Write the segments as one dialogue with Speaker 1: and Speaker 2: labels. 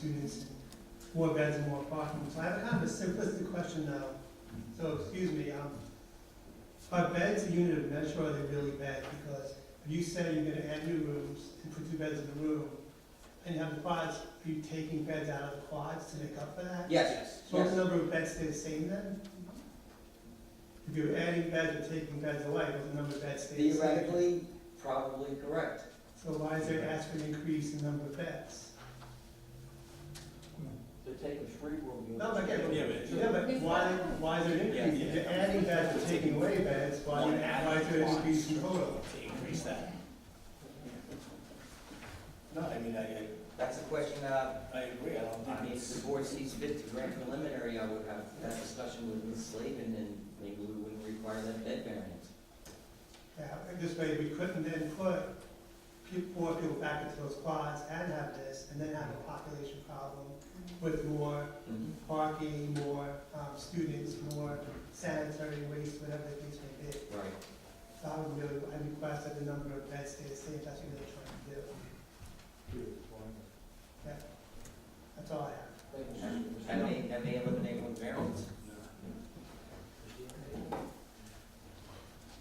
Speaker 1: students, more beds and more parking. So I have a kind of a simplistic question now, so excuse me, um, are beds a unit of measure or are they really beds? Because if you say you're gonna add new rooms and put two beds in the room, and you have the quads, are you taking beds out of the quads to make up for that?
Speaker 2: Yes,
Speaker 1: So the
Speaker 2: yes.
Speaker 1: number of beds stay the same then? If you're adding beds or taking beds away, will the number of beds stay the same?
Speaker 2: Theoretically, probably correct.
Speaker 1: So why is there ask for an increase in number of beds?
Speaker 3: They're taking three room units.
Speaker 1: No, but again,
Speaker 4: Yeah, but-
Speaker 1: yeah, but why, why is there an
Speaker 4: Yeah,
Speaker 1: increase? If
Speaker 4: yeah.
Speaker 1: you're adding beds or taking away beds, why,
Speaker 4: One added
Speaker 1: why is there an
Speaker 4: quads.
Speaker 1: increase in total?
Speaker 4: To increase that. No, I mean, I,
Speaker 2: That's a question that,
Speaker 4: I, I agree, I
Speaker 2: I
Speaker 4: don't
Speaker 2: mean,
Speaker 4: think
Speaker 2: if
Speaker 4: it's.
Speaker 2: the board sees fit to grant preliminary, I would have that discussion with Ms. Slavin, and maybe we wouldn't require that bed variance.
Speaker 1: Yeah, and this way we couldn't then put peop more people back into those quads and have this, and then have a population problem with more parking, more, um, students, more sanitary waste, whatever the case may be.
Speaker 2: Right.
Speaker 1: So I would really, I request that the number of beds stay the same, if that's what they're trying to do. That's all I have.
Speaker 2: That may, that may eliminate one variance.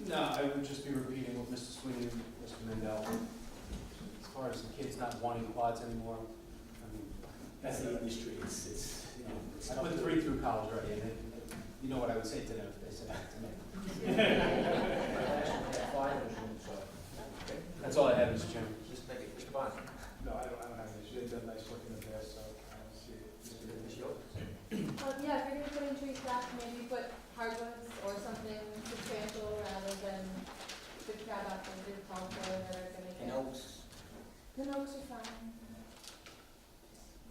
Speaker 4: No, I would just be repeating what Mr. Sweeney and Mr. Mandel, as far as the kids not wanting quads anymore, I mean. That's the industry, it's, it's, you know, it's. I put three through college already, and it- you know what I would say to them if they said that to me.
Speaker 3: Five is in, so.
Speaker 4: That's all I have, Mr. Chairman.
Speaker 3: Just make it, Mr. Bond.
Speaker 4: No, I don't, I don't have an issue, they've done nice work in the past, so I don't see it.
Speaker 3: Ms. Yocum.
Speaker 5: Um, yeah, if you're gonna put in trees back, maybe put hardwoods or something substantial rather than the crab apples and poplar that are gonna
Speaker 2: And
Speaker 5: get.
Speaker 2: oaks,
Speaker 5: The oaks are fine.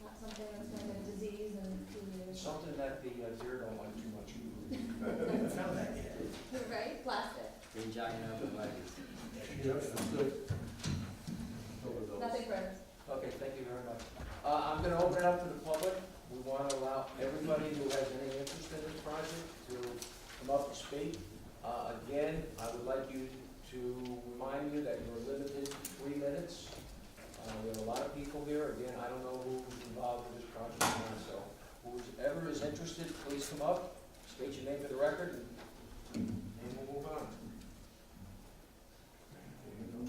Speaker 5: Not something that's gonna get disease and two years.
Speaker 3: Something that the uh, deer don't like too much.
Speaker 4: Found that yet?
Speaker 5: Right, plastic,
Speaker 2: green giant arborvitae's.
Speaker 5: nothing grows.
Speaker 3: Okay, thank you very much. Uh, I'm gonna open it up to the public. We wanna allow everybody who has any interest in this project to come up and speak. Uh, again, I would like you to remind you that you're limited to three minutes. Uh, we have a lot of people here. Again, I don't know who's involved in this project now, so whoever is interested, please come up, state your name for the record, and- and we'll move on.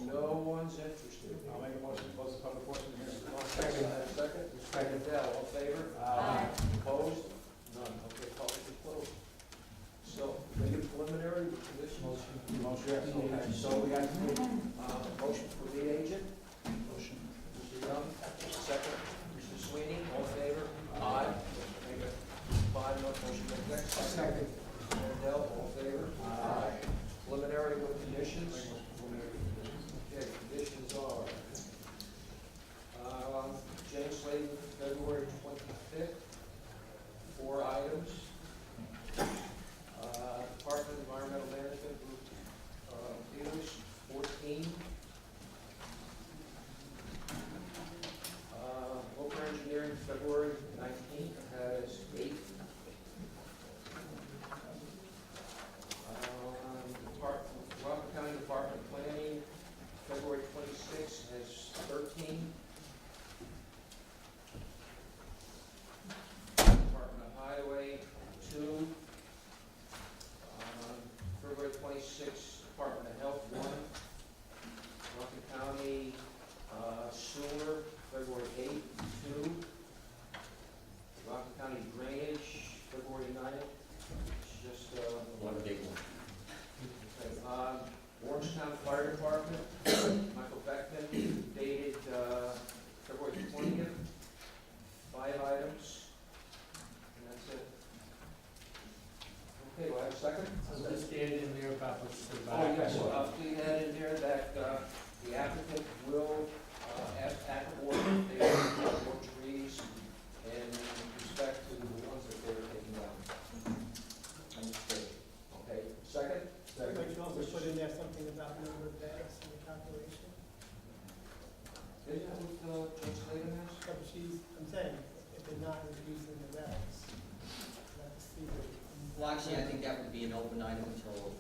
Speaker 3: No one's interested.
Speaker 4: I'll make a motion to close the public portion here.
Speaker 3: Second, second, Mr. Mandel, all in favor?
Speaker 4: Um, Uh,
Speaker 5: Aye.
Speaker 3: Opposed? None, okay, public is closed. So, make it preliminary, with conditional. Motion. Okay, so we have to, uh, motion for lead agent,
Speaker 4: Motion.
Speaker 3: Mr. Young, second, Mr. Sweeney, all in favor? Aye. Make it Five, no, motion carries. Second. Mandel, all in favor?
Speaker 4: uh,
Speaker 3: Aye. Preliminary with conditions? Okay, conditions are, um, James Slade, February twenty-fifth, four items. Uh, Department of Environmental Management, Group, uh, Peters, fourteen. Uh, Local Engineering, February nineteenth, has eight. Um, Department, Rockland County Department of Planning, February twenty-sixth is thirteen. Department of Highway, two. Um, February twenty-sixth, Department of Health, one. Rockland County uh, Sewer, February eighth, two. Rockland County Drainage, February ninth, it's just, uh.
Speaker 2: One big one.
Speaker 3: Um, Orangetown Fire Department, Michael Beckman, dated, uh, February twentieth, five items, and that's it. Okay, do I have a second?
Speaker 4: stated in there about what's the.
Speaker 3: Oh, yes, uh, please add in there that, uh, the applicant will, uh, ask, act or if they are more trees in respect to the ones that they're taking down.
Speaker 2: Understood.
Speaker 3: Okay, second?
Speaker 1: But you also put in there something about number of beds in the calculation,
Speaker 3: Isn't that what, uh, Judge Slaven has?
Speaker 1: but she's, I'm saying, if they're not increasing the beds, that's the.
Speaker 2: Well, actually, I think that would be an open item until